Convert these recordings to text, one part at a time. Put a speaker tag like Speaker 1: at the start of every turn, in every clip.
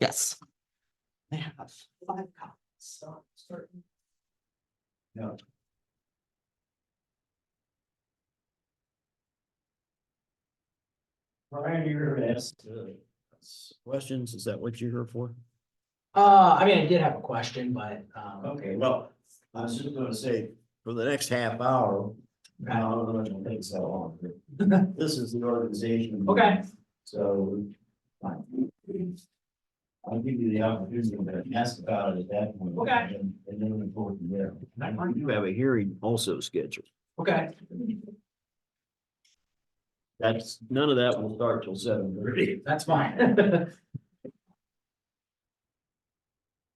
Speaker 1: Yes.
Speaker 2: They have five copies, so certain.
Speaker 3: No. Brian, you're asked uh, questions, is that what you're here for?
Speaker 4: Uh, I mean, I did have a question, but, um,
Speaker 3: Okay, well, I was just gonna say, for the next half hour, I don't know if it'll take so long. but This is the organization.
Speaker 4: Okay.
Speaker 3: So. fine. I'll give you the opportunity to ask about it at that point.
Speaker 4: Okay.
Speaker 3: And and then report from there. I do have a hearing also scheduled.
Speaker 4: okay,
Speaker 3: That's, none of that will start till seven thirty.
Speaker 4: that's fine.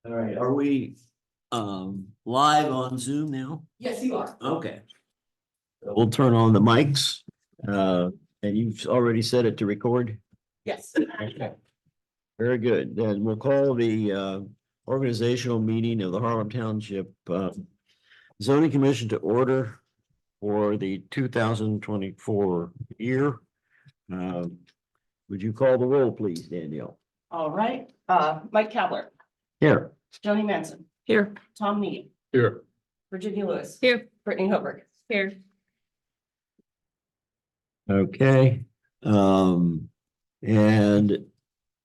Speaker 3: All right, are we, um, live on Zoom now?
Speaker 2: Yes, you are.
Speaker 3: Okay. We'll turn on the mics, uh, and you've already set it to record?
Speaker 2: Yes.
Speaker 3: Okay. Very good. Then we'll call the, uh, organizational meeting of the Harlem Township, uh, zoning commission to order for the two thousand twenty-four year. Um, Would you call the roll, please, Danielle?
Speaker 5: All right, uh, Mike Kavler,
Speaker 3: Here.
Speaker 5: Joni Manson,
Speaker 1: Here.
Speaker 5: Tom Need,
Speaker 6: Here.
Speaker 5: Virginia Lewis.
Speaker 1: Here.
Speaker 5: Brittany Hoberg.
Speaker 1: Here.
Speaker 3: Okay, um, and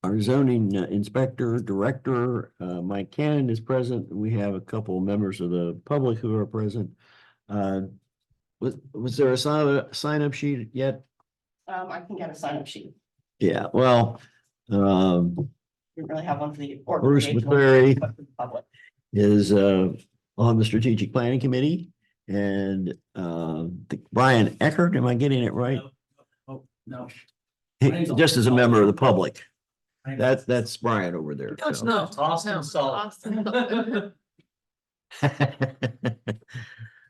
Speaker 3: our zoning inspector, director, uh, Mike Cannon is present. We have a couple of members of the public who are present. Uh, was, was there a sign, sign up sheet yet?
Speaker 5: Um, I can get a sign up sheet.
Speaker 3: Yeah, well, um,
Speaker 5: Didn't really have one for the.
Speaker 3: Bruce
Speaker 5: organizational,
Speaker 3: McCleary
Speaker 5: but for the public.
Speaker 3: is, uh, on the strategic planning committee. And, um, Brian Eckert, am I getting it right?
Speaker 4: Oh, no. Brian's on.
Speaker 3: Just as a member of the public.
Speaker 4: Brian's-
Speaker 3: That's, that's Brian over there.
Speaker 1: No, it's
Speaker 3: so.
Speaker 1: not.
Speaker 4: It's Austin
Speaker 1: Oh, No,
Speaker 4: Salt.
Speaker 1: Austin Salt.
Speaker 3: And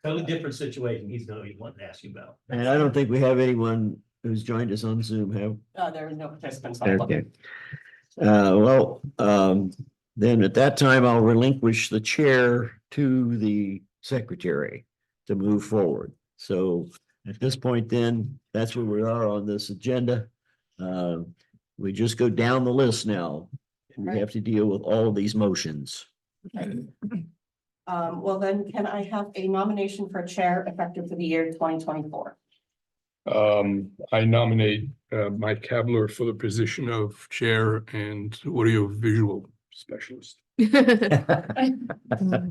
Speaker 6: Totally different situation he's gonna be wanting to ask you about.
Speaker 3: I don't think we have anyone who's joined us on Zoom, have?
Speaker 5: Uh, there was no participants. on the
Speaker 3: Okay.
Speaker 5: public.
Speaker 3: Uh, well, um, then at that time, I'll relinquish the chair to the secretary to move forward. So at this point then, that's where we are on this agenda. Uh, we just go down the list now. We have to deal with all of these motions.
Speaker 5: Um, well then, can I have a nomination for chair effective for the year twenty twenty-four?
Speaker 7: Um, I nominate uh Mike Kavler for the position of Chair and Audio Visual Specialist.
Speaker 1: Mm-hmm.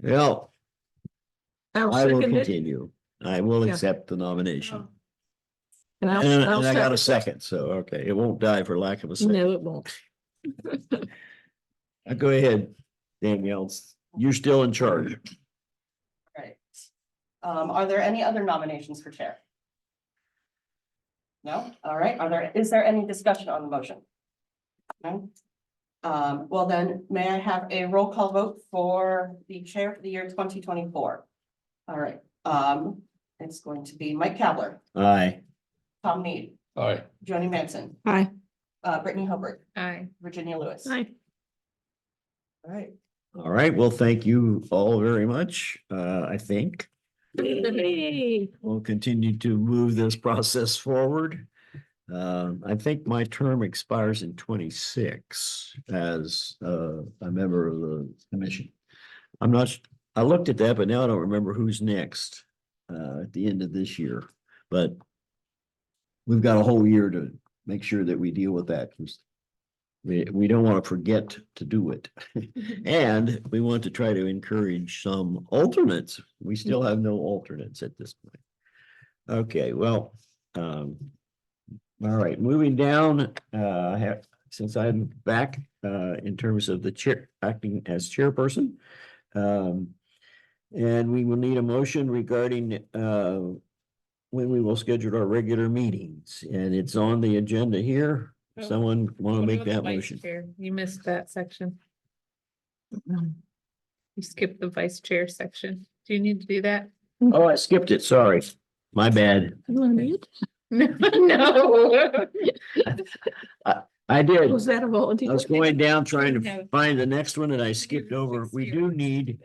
Speaker 3: Well,
Speaker 1: I'll
Speaker 3: I will
Speaker 1: second it.
Speaker 3: continue. I will
Speaker 1: Yeah.
Speaker 3: accept the nomination.
Speaker 1: And I'll-
Speaker 3: And
Speaker 1: I'll
Speaker 3: and I got a second,
Speaker 1: second
Speaker 3: so, okay, it won't die for lack of a
Speaker 1: it.
Speaker 3: second.
Speaker 1: No, it won't.
Speaker 3: Uh, Go ahead, Danielle. You're still in charge.
Speaker 5: Right. Um, are there any other nominations for chair? No? All right, are there, is there any discussion on the motion? No? Um, well then, may I have a roll call vote for the chair for the year twenty twenty-four? All right, um, it's going to be Mike Kavler,
Speaker 3: Aye.
Speaker 5: Tom Need,
Speaker 7: Aye.
Speaker 5: Joni Manson,
Speaker 1: Aye.
Speaker 5: uh, Brittany Hubbard,
Speaker 1: Aye.
Speaker 5: Virginia Lewis.
Speaker 1: Aye.
Speaker 5: All right.
Speaker 3: All right, well, thank you all very much, uh, I think.
Speaker 1: Yay.
Speaker 3: We'll continue to move this process forward. Um, I think my term expires in twenty-six as, uh, a member of the commission. I'm not, s- I looked at that, but now I don't remember who's next, uh, at the end of this year, but we've got a whole year to make sure that we deal with that. 'cause We, we don't want to forget to do it. And we want to try to encourage some alternates. We still have no alternates at this point. Okay, well, um, all right, moving down, uh, I have, since I'm back, uh, in terms of the chair, acting as chairperson. Um, and we will need a motion regarding, uh, when we will schedule our regular meetings, and it's on the agenda here.
Speaker 1: Oh.
Speaker 3: Someone want to
Speaker 1: What
Speaker 3: make
Speaker 1: about the
Speaker 3: that
Speaker 1: vice
Speaker 3: motion?
Speaker 1: chair? You missed that section. You skipped the vice chair section. Do you need to do that?
Speaker 3: Oh, I skipped it, sorry. My bad.
Speaker 1: You want to mute? No, no.
Speaker 3: I did.
Speaker 1: Was that a volunteer?
Speaker 3: I was going down trying
Speaker 1: No.
Speaker 3: to find the next one and I skipped over. We do need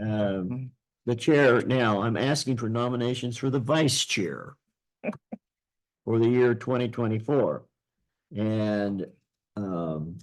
Speaker 3: um the chair now. I'm asking for nominations for the vice chair for the year twenty twenty-four. And um